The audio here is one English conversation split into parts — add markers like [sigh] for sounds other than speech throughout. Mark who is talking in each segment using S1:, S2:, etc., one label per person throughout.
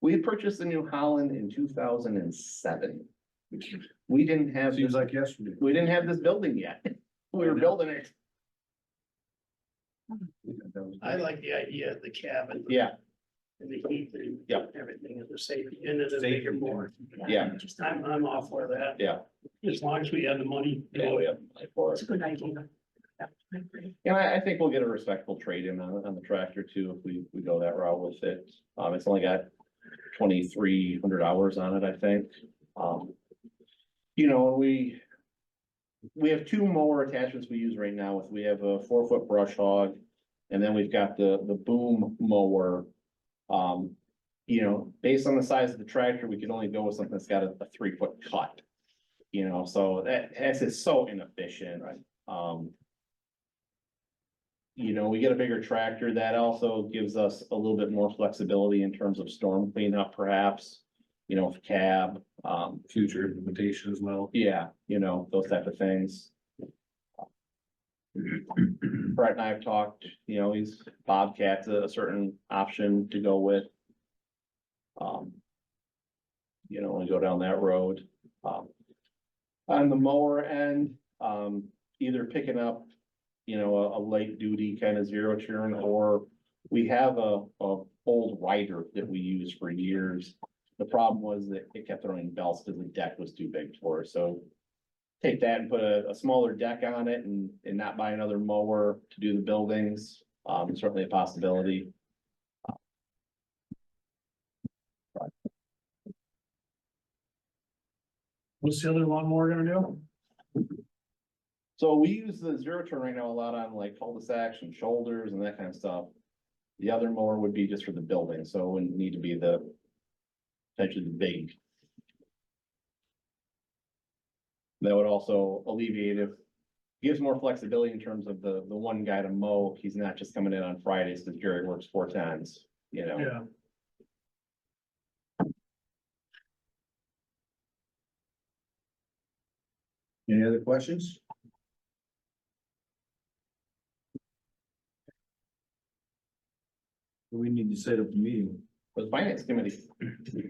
S1: We purchased the New Holland in two thousand and seven. We didn't have,
S2: Seems
S1: this-
S2: like yesterday.
S1: we didn't have this building yet. We were building it.
S3: I like the idea of the cabin
S1: Yeah,
S3: and the heat and
S1: Yeah.
S3: everything as a safety and as a bigger
S2: Safety.
S3: board.
S1: yeah,
S3: I'm, I'm all for that.
S1: Yeah.
S3: As long as we have the money.
S1: yeah, we have money for it.
S3: a good idea. Well,
S1: And I, I think we'll get a respectful trade-in on, on the tractor too, if we, we go that route with it. Um, it's only got twenty-three hundred hours on it, I think. Um, you know, we, we have two mower attachments we use right now with, we have a four-foot brush hog, and then we've got the, the boom mower. Um, you know, based on the size of the tractor, we can only go with something that's got a, a three-foot cut. You know, so that, that's just so inefficient. Right. Um, you know, we get a bigger tractor, that also gives us a little bit more flexibility in terms of storm cleanup perhaps. You know, cab, um,
S2: Future implementation as well. [clears throat]
S1: yeah, you know, those type of things. Brett and I have talked, you know, he's Bobcat's a a certain option to go with. Um. You know, when we go down that road, um. On the mower end, um, either picking up, you know, a, a light duty kind of zero turn or. We have a, a old rider that we use for years. The problem was that it kept throwing belts because the deck was too big for it, so. Take that and put a, a smaller deck on it and, and not buy another mower to do the buildings, um, certainly a possibility.
S3: What's the other lawnmower gonna do?
S1: So we use the zero turn right now a lot on like cul-de-sacs and shoulders and that kind of stuff. The other mower would be just for the building, so it wouldn't need to be the. Potentially the big. That would also alleviate if, gives more flexibility in terms of the, the one guy to mow, he's not just coming in on Fridays because Jerry works four times, you know?
S3: Yeah.
S2: Any other questions? We need to set up a meeting.
S1: For the finance committee. [clears throat]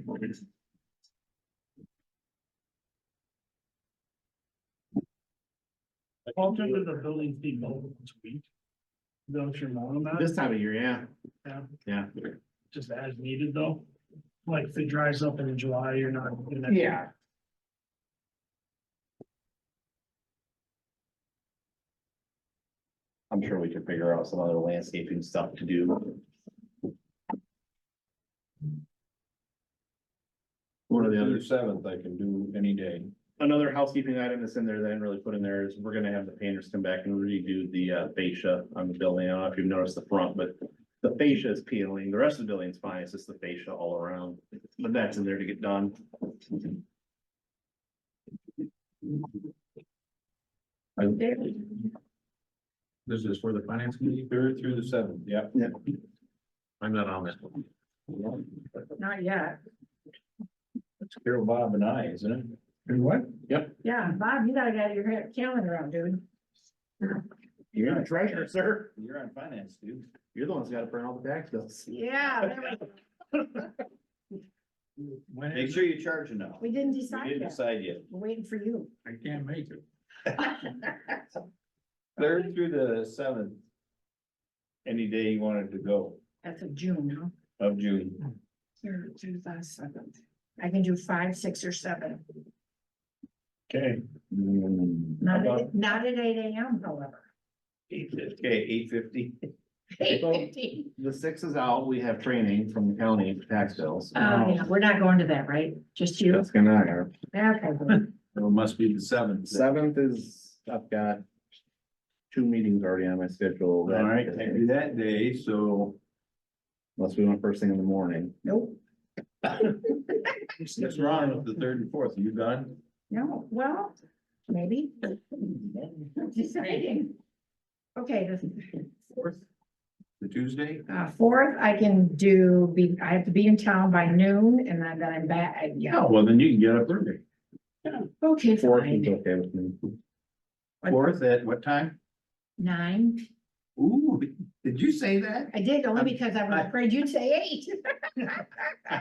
S3: Well, turn to the building fee bill once a week. Don't you mow them out,
S1: This time of year, yeah,
S3: Yeah,
S1: yeah.
S3: just as needed though? Like if it dries up in July, you're not. you're not-
S1: Yeah. I'm sure we could figure out some other landscaping stuff to do. One of the other,
S2: Seventh I can do any day.
S1: another housekeeping item that's in there that I didn't really put in there is we're gonna have the painters come back and redo the uh, fascia on the building. I don't know if you've noticed the front, but the fascia is peeling. The rest of the building's fine. It's just the fascia all around, but that's in there to get done.
S2: This is for the finance committee, third through the seventh, yeah.
S1: Yeah.
S2: I'm not on this one.
S4: Not yet.
S2: It's Carol, Bob and I, isn't it? And what?
S4: Yeah, Bob, you gotta get your head- calendar out, dude.
S2: You're on
S1: treasure, sir.
S2: You're on finance, dude.
S1: You're the one's gotta print all the tax bills.
S4: [laughs] Yeah, there we go.
S3: When
S2: Make
S3: is
S2: sure you charge enough.
S4: we didn't
S2: We
S4: decide
S2: didn't
S4: yet.
S2: decide yet.
S4: We're waiting for [laughs] you.
S3: it? I can't make it.
S2: Third through the seventh. Any day you wanted to go
S4: That's of June, huh?
S2: of June.
S4: Third through the seventh. I can do five, six, or seven.
S3: Okay.
S4: Not,
S2: About-
S4: at- not at eight AM, however.
S2: Okay, eight fifty.
S4: Eight
S1: Well-
S4: fifteen.
S1: The six is out, we have training from the county for tax bills.
S4: [laughs]
S2: Uh,
S4: Oh, yeah, we're not going to that, right? Just you?
S1: That's gonna happen.
S4: Okay, good.
S2: It must be the seventh.
S1: Seventh is, I've got two meetings already on my schedule.
S2: All right, can't do that day, so.
S1: Unless we went first thing in the morning.
S4: Nope,
S2: What's wrong with the third and fourth? Are you done?
S4: no, well, maybe. Deciding. Okay, the
S2: Fourth? The Tuesday?
S4: Uh, fourth, I can do, be, I have to be in town by noon and then then I'm back, I- yeah,
S2: Oh, well, then you can get up early.
S4: Oh, okay,
S1: Fourth is
S4: fine,
S1: okay with me.
S2: Fourth at what time?
S4: nine.
S2: Ooh, did you say that?
S4: I did only because I was afraid you'd say eight.